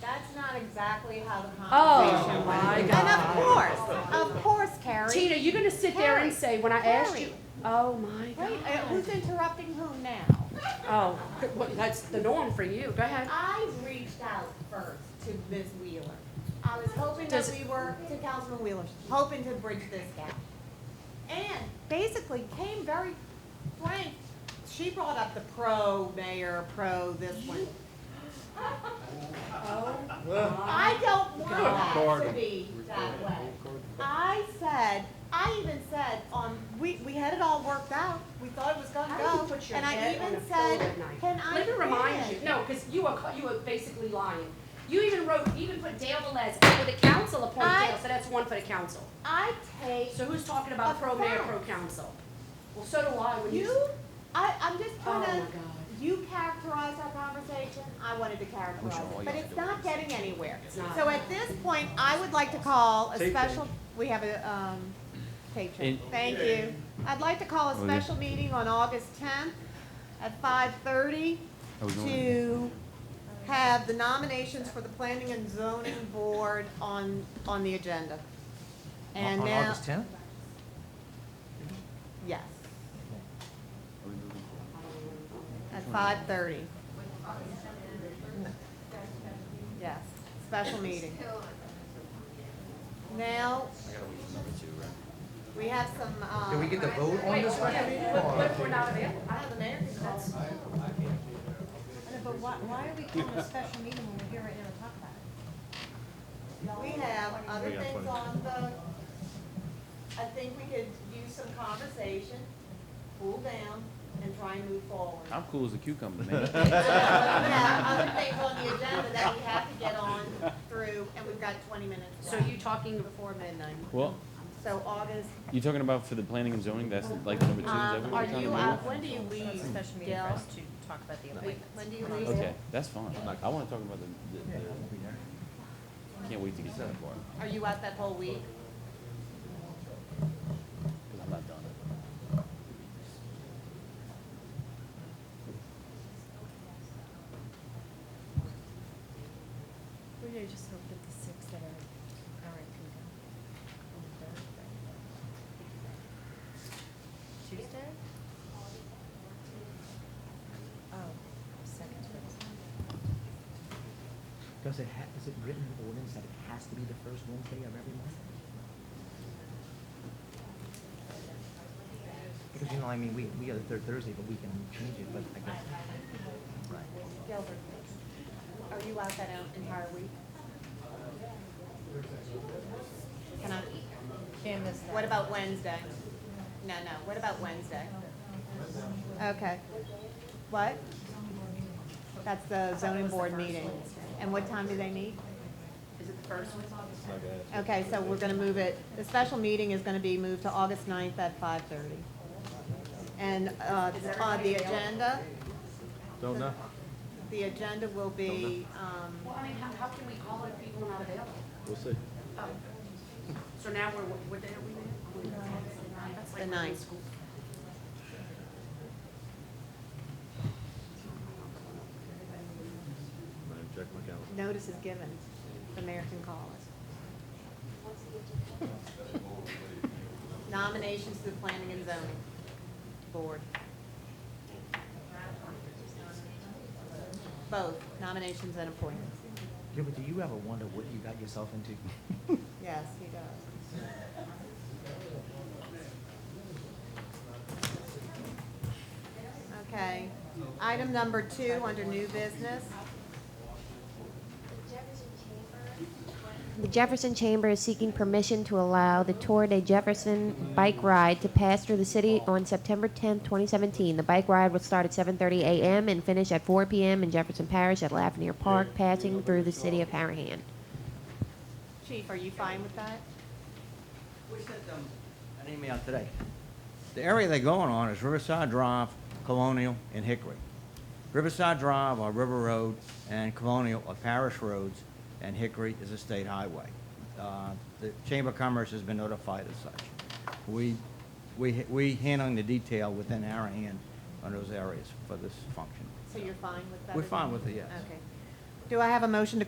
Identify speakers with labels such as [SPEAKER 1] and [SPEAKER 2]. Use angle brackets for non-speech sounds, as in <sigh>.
[SPEAKER 1] That's not exactly how the
[SPEAKER 2] Oh,
[SPEAKER 1] conversation went.
[SPEAKER 2] my
[SPEAKER 1] And of
[SPEAKER 2] God.
[SPEAKER 1] course, of course, Carrie.
[SPEAKER 2] Tina, you're gonna sit there and say, when I asked you,
[SPEAKER 1] Harry.
[SPEAKER 2] oh, my
[SPEAKER 1] Wait, uh,
[SPEAKER 2] God.
[SPEAKER 1] who's interrupting who now?
[SPEAKER 2] Oh, well, that's the norm for you. Go ahead.
[SPEAKER 1] I reached out first to Ms. Wheeler. I was hoping that
[SPEAKER 2] Does-
[SPEAKER 1] we were, to Councilman Wheeler, hoping to bridge this gap. And basically came very frank. She brought up the pro mayor, pro this one.
[SPEAKER 2] Oh,
[SPEAKER 1] I don't want that to be that way. I said, I even said on, we, we had it all worked out. We thought it was gonna
[SPEAKER 2] How do you
[SPEAKER 1] go.
[SPEAKER 2] put your
[SPEAKER 1] And I
[SPEAKER 2] head on
[SPEAKER 1] even
[SPEAKER 2] a pillow
[SPEAKER 1] said,
[SPEAKER 2] at night?
[SPEAKER 1] can I
[SPEAKER 2] Let me remind
[SPEAKER 1] finish?"
[SPEAKER 2] you, no, because you are, ca- you are basically lying. You even wrote, you even put Dale Velez over the council
[SPEAKER 1] I-
[SPEAKER 2] appointed Dale, so that's one for the council.
[SPEAKER 1] I take
[SPEAKER 2] So who's talking about pro mayor, pro
[SPEAKER 1] Offense.
[SPEAKER 2] council? Well, so do I when you.
[SPEAKER 1] You, I, I'm just
[SPEAKER 2] Oh, my
[SPEAKER 1] gonna,
[SPEAKER 2] God.
[SPEAKER 1] you characterized our conversation, I wanted to characterize it, but it's not getting anywhere.
[SPEAKER 2] It's not.
[SPEAKER 1] So at this point, I would like to call a
[SPEAKER 3] Tape
[SPEAKER 1] special, we have a, um, tape change,
[SPEAKER 4] In-
[SPEAKER 1] thank you. I'd like to call a
[SPEAKER 4] Okay.
[SPEAKER 1] special meeting on August tenth at five thirty
[SPEAKER 4] I
[SPEAKER 3] Oh,
[SPEAKER 4] was doing it.
[SPEAKER 1] to have the nominations for the planning and zoning board on, on the agenda. And
[SPEAKER 3] On
[SPEAKER 1] now,
[SPEAKER 3] August tenth?
[SPEAKER 1] yes, at five thirty. Yes, special meeting. Now, we have some, um.
[SPEAKER 3] Did we get the vote on
[SPEAKER 2] Wait,
[SPEAKER 3] this
[SPEAKER 2] what
[SPEAKER 3] special meeting?
[SPEAKER 2] if- what
[SPEAKER 3] or-
[SPEAKER 2] if we're not available?
[SPEAKER 1] I have the mayor, that's.
[SPEAKER 5] But why, why are we calling a special meeting when we're here right now to talk about it?
[SPEAKER 1] We have other
[SPEAKER 4] We got
[SPEAKER 1] things
[SPEAKER 4] plenty.
[SPEAKER 1] on the, I think we could use some conversation, cool down, and try and move forward.
[SPEAKER 4] I'm cool as a cucumber, man.
[SPEAKER 3] <laughs>
[SPEAKER 1] Yeah, other things on the agenda that we have to get on through, and we've got twenty minutes
[SPEAKER 2] So
[SPEAKER 1] left
[SPEAKER 2] you talking,
[SPEAKER 1] before midnight.
[SPEAKER 4] Well,
[SPEAKER 1] So August,
[SPEAKER 4] you talking about for the planning and zoning? That's like number two. Is that
[SPEAKER 1] um, are
[SPEAKER 4] what we're talking
[SPEAKER 1] you, uh,
[SPEAKER 4] about?
[SPEAKER 1] when do you leave,
[SPEAKER 5] Special meeting for us to talk about the appointments.
[SPEAKER 1] when do you leave?
[SPEAKER 4] Okay, that's fine. I want to talk about the. the, the can't wait to get to that part
[SPEAKER 1] Are you out that whole week?
[SPEAKER 4] because I'm not done.
[SPEAKER 5] We're gonna just hope that the six that are, are in can go on Thursday. Tuesday? Oh, second Thursday.
[SPEAKER 3] Does it ha, is it written in ordinance that it has to be the first Wednesday of every month? Because, you know, I mean, we, we are the third Thursday, but we can change it, but I guess. Right.
[SPEAKER 1] Gilbert, are you out that entire week? Can I,
[SPEAKER 5] Can't miss
[SPEAKER 1] what about Wednesday? No, no, what about Wednesday? Okay. What? That's the zoning board meeting. And what time do they meet?
[SPEAKER 2] is it the first
[SPEAKER 1] Oh,
[SPEAKER 2] one?
[SPEAKER 1] Okay, so we're gonna move it, the special meeting is gonna be moved to August 9th at five thirty. And, uh, on the agenda,
[SPEAKER 4] Don't know.
[SPEAKER 1] the agenda will be, um,
[SPEAKER 2] Well, I mean, how, how can we call it if people are not available?
[SPEAKER 4] We'll see.
[SPEAKER 2] Oh. So now we're, what what day are we in? That's like
[SPEAKER 1] The
[SPEAKER 2] we're in
[SPEAKER 1] ninth.
[SPEAKER 2] school.
[SPEAKER 1] notice is um, given, the mayor can call us. <laughs> Nominations to the planning and zoning board. Both nominations and appointments.
[SPEAKER 3] Gilbert, do you ever wonder what you got yourself into? <laughs>
[SPEAKER 1] Yes, he does. Okay, item number two under new business.
[SPEAKER 6] The Jefferson Chamber is seeking permission to allow the Tour de Jefferson bike ride to pass through the city on September 10, 2017. The bike ride will start at 7:30 a.m. and finish at 4 p.m. in Jefferson Parish at Lafreniere Park, passing through the city of Harahan.
[SPEAKER 1] Chief, are you fine with that?
[SPEAKER 7] We sent them an email today. The area they're going on is Riverside Drive, Colonial, and Hickory. Riverside Drive or River Road and Colonial are parish roads, and Hickory is a state highway. Uh, The Chamber of Commerce has been notified as such. We, we, we handling the detail within our hand on those areas for this function.
[SPEAKER 1] So you're fine with that?
[SPEAKER 7] We're fine with it, yes.
[SPEAKER 1] Okay. Do I have a motion to grant